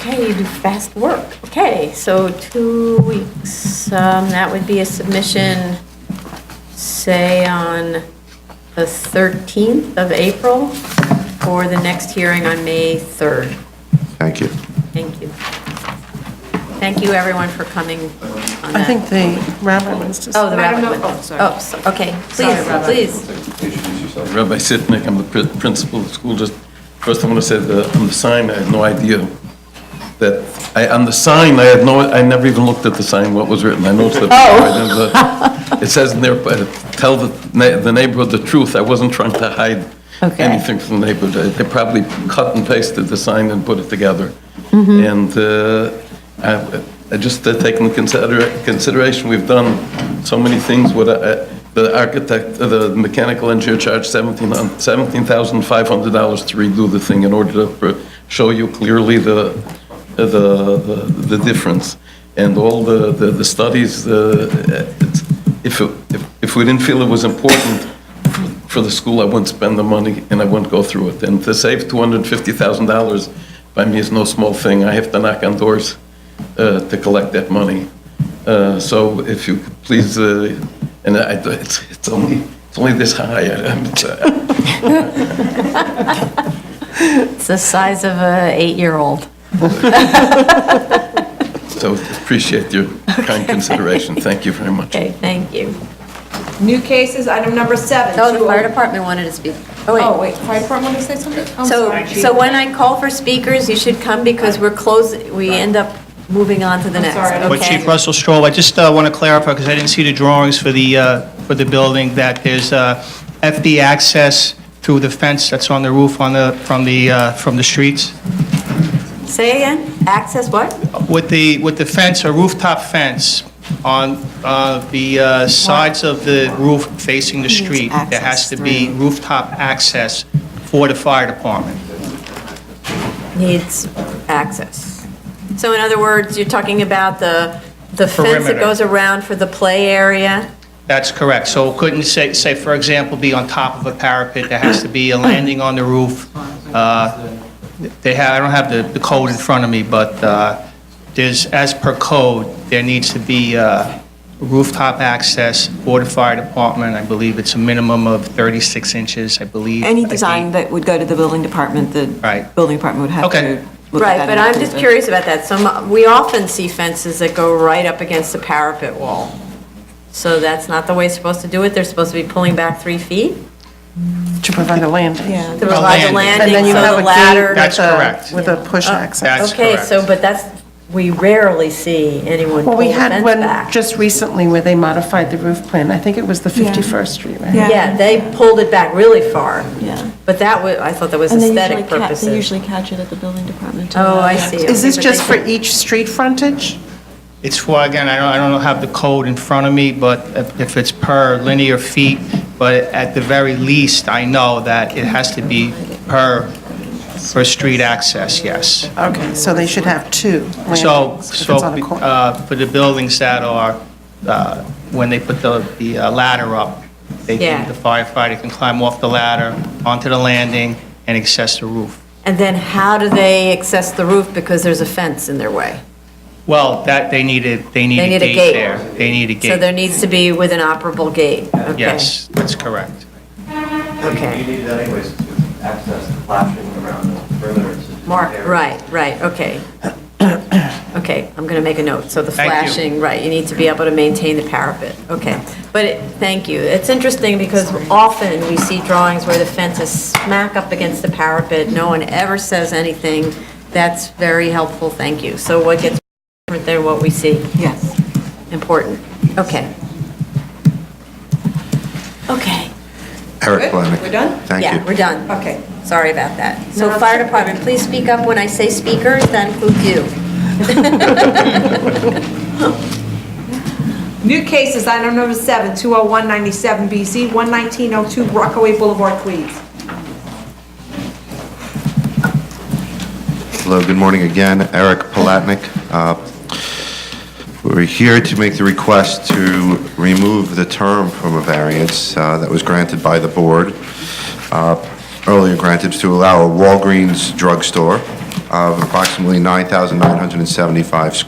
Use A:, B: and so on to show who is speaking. A: Okay, you do fast work. Okay, so two weeks, um, that would be a submission, say, on the 13th of April for the next hearing on May 3rd.
B: Thank you.
A: Thank you. Thank you, everyone, for coming on
C: I
A: that.
C: think the rabbit was just.
A: Oh, the
D: Madam
A: rabbit
D: Noel-
A: one.
D: oh, sorry.
A: Oh, so- okay,
D: Sorry, Robert.
A: please, please.
E: Rabbi Sitnik, I'm the prin- principal of the school. Just first, I want to say that on the sign, I had no idea that, I, on the sign, I had no, I never even looked at the sign, what was written. I noticed that. Oh. It says in there, but tell the na- the neighborhood the truth. I wasn't trying to hide
A: Okay.
E: anything from the neighborhood. They they probably cut and pasted the sign and put it together. And uh, I- I just uh, taking into consider- consideration, we've done so many things with uh, the architect, uh, the mechanical engineer charged seventeen hun- $17,500 to redo the thing in order to pr- show you clearly the, uh, the, the the difference. And all the, the the studies, uh, it's- if, it- if- if we didn't feel it was important, for the school, I wouldn't spend the money and I wouldn't go through it. And to save $250,000 by me is no small thing. I have to knock on doors uh, to collect that money. Uh, So if you could please, uh, and I, it's it's only, it's only this high. I- I'm-
A: It's the size of a eight-year-old.
E: So appreciate your kind consideration. Thank you very much.
A: Okay, thank you.
D: New cases, item number seven.
A: Oh, the
D: two-
A: fire department wanted to speak.
D: Oh, wait, fire department, want to say something? I'm
A: So,
D: sorry.
A: so when I call for speakers, you should come because we're closed, we end up moving on to the
D: I'm
A: next.
D: sorry, I don't-
F: But
A: okay?
F: Chief Russell Stroll, I just want to clarify, because I didn't see the drawings for the, uh, for the building, that there's uh, FB access through the fence that's on the roof on the, from the, uh, from the streets.
A: Say again, access what?
F: With the, with the fence, a rooftop fence on uh, the uh, sides of the roof facing the street, there has to be rooftop access for the fire department.
A: Needs access. So in other words, you're talking about the, the fence that
F: Perimeter.
A: goes around for the play area?
F: That's correct. So it couldn't say, say, for example, be on top of a parapet, there has to be a landing on the roof. Uh, They have, I don't have the, the code in front of me, but uh, there's, as per code, there needs to be uh, rooftop access for the fire department. I believe it's a minimum of 36 inches, I believe.
G: Any
F: I think.
G: design that would go to the building department, the
F: Right.
G: building department would have
F: Okay.
G: to look at that.
A: Right, but
G: and
A: I'm
G: approve
A: just
G: it.
A: curious about that. Some, we often see fences that go right up against the parapet wall. So that's not the way it's supposed to do it. They're supposed to be pulling back three feet
C: To provide a landing.
A: to
C: Yeah.
A: provide the
F: landing.
C: And
A: landing,
C: then you
A: so
C: have a
A: the
C: gate
A: ladder.
F: That's
C: with a,
F: correct.
C: with a push access.
F: That's
A: Okay, so,
F: correct.
A: but that's, we rarely see anyone pull
C: Well,
A: the
C: we had
A: fence
C: one
A: back.
C: just recently where they modified the roof plan. I think it was the 51st Street, right?
A: Yeah, they pulled it back really far.
H: Yeah.
A: But that was, I thought that was
H: And they usually
A: aesthetic
H: catch, they
A: purposes.
H: usually catch it at the building department.
A: Oh, I see.
C: Is this
A: Okay, but
C: just for
A: they-
C: each street frontage?
F: It's for, again, I don't, I don't have the code in front of me, but if- if it's per linear feet, but at the very least, I know that it has to be per, per street access, yes.
C: Okay, so they should have two
F: So,
C: landings if it's
F: so
C: on a corner.
F: uh, for the buildings that are, uh, when they put the the uh, ladder up, they
A: Yeah.
F: can, the firefighter can climb off the ladder, onto the landing, and access the roof.
A: And then how do they access the roof because there's a fence in their way?
F: Well, that, they need a, they need
A: They
F: a
A: need a
F: gate
A: gate.
F: there. They need a
A: So there
F: gate.
A: needs to be with an operable gate. Okay,
F: Yes, that's correct.
A: Okay.
I: You need that anyways to access the flashing around the perimeter. to do
A: Mark,
I: air.
A: right, right, okay. Okay, I'm going to make a note. So the
F: Thank you.
A: flashing, right, you need to be able to maintain the parapet. Okay. But, it- thank you. It's interesting because often we see drawings where the fence is smack up against the parapet. No one ever says anything. That's very helpful, thank you. So what gets different than what we see?
G: Yes.
A: Important. Okay. Okay.
B: Eric
D: Good?
B: Planick.
D: We're done?
B: Thank you.
A: Yeah, we're done.
D: Okay.
A: Sorry about that. So
D: No, it's
A: fire
D: okay.
A: department, please speak up when I say speakers, that includes you.
D: New cases, item number seven, 20197 BZ, 11902 Rockaway Boulevard, Queens.
B: Hello, good morning again. Eric Palatnik. Uh, We're here to make the request to remove the term from a variance uh, that was granted by the board, uh, earlier granted to allow a Walgreens drugstore of approximately 9,975 square